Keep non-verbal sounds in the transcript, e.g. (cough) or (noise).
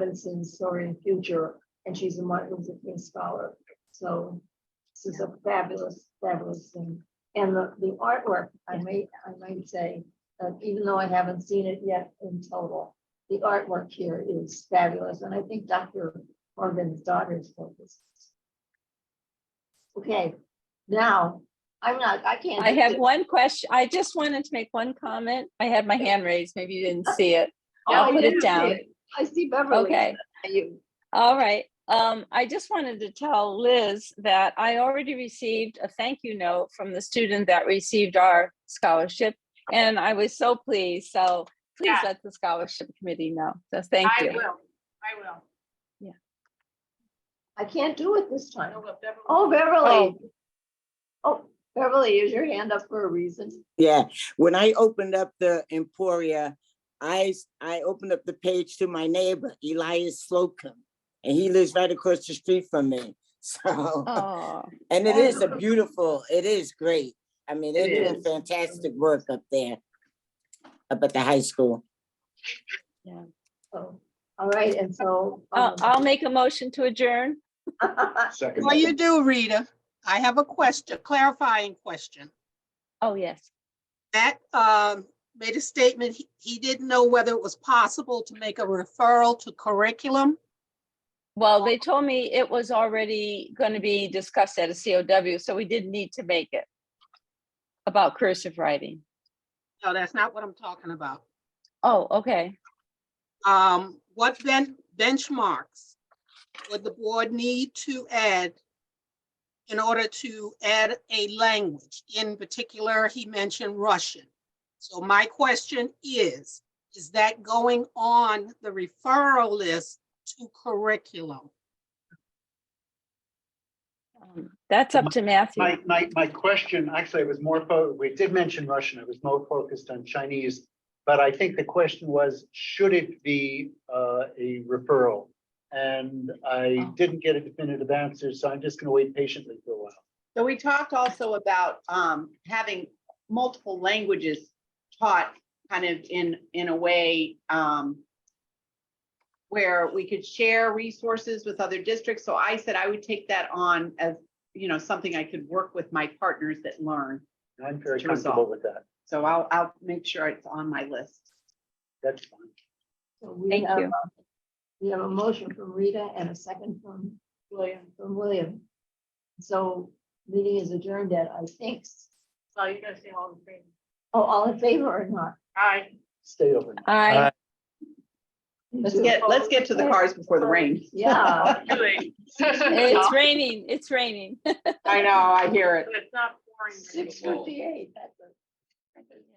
Robinson's Soaring Future, and she's a Martin Luther King Scholar. So this is a fabulous, fabulous thing. And the, the artwork, I may, I might say, uh, even though I haven't seen it yet in total, the artwork here is fabulous, and I think Dr. Morgan's daughter's focus. Okay, now, I'm not, I can't. I have one question. I just wanted to make one comment. I had my hand raised. Maybe you didn't see it. Oh, I'll I put didn't it see down. I see Oh, Beverly. Okay, You, all right. Um, I just wanted to tell Liz that I already received a thank you note from the student that received our scholarship. And I was so pleased. So please Yeah. let the scholarship committee know. So thank I you. will, I will. I can't do it this time. No, but Beverly- Oh, Beverly. Oh, Beverly, is your hand up for a reason? Yeah, when I opened up the Emporia, I, s- I opened up the page to my neighbor, Elias Slocum. And he lives right across the street from me, (laughs) so, Oh, and it is a beautiful, it is great. I mean, they're It doing fantastic work up there, up at the high school. Oh, all right, and so. I'll, Uh, um, Uh, I'll make a motion to adjourn. (laughs) Second. Well, you do, Rita. I have a question, clarifying question. Oh, yes. Matt um, made a statement, he- he didn't know whether it was possible to make a referral to curriculum. Well, they told me it was already going to be discussed at a COW, so we didn't need to make it about cursive writing. No, that's not what I'm talking about. Oh, okay. Um, What ben- benchmarks would the board need to add in order to add a language? In particular, he mentioned Russian. So my question is, is that going on the referral list to curriculum? Um, That's up to Matthew. My, my, my question, actually, it was more, fo- we did mention Russian, it was more focused on Chinese. But I think the question was, should it be uh, a referral? And I Oh. didn't get a definitive answer, so I'm just going to wait patiently for a while. So we talked also about um having multiple languages taught kind of in in a way um where we could share resources with other districts. So I said I would take that on as, you know, something I could work with my partners that learn. And I'm very To resolve. comfortable with that. So I'll I'll make sure it's on my list. That's fine. so we Thank have you. a- We have a motion from Rita and a second from William, from William. So meeting is adjourned at, I think. So you're gonna say all in favor? Oh, all in favor or not? Aye. Stay overnight. I, Let's get, let's get to the cars before the rain. (laughs) Yeah. (laughs) it's raining, it's raining. I know, I hear it. Six fifty-eight, that's a.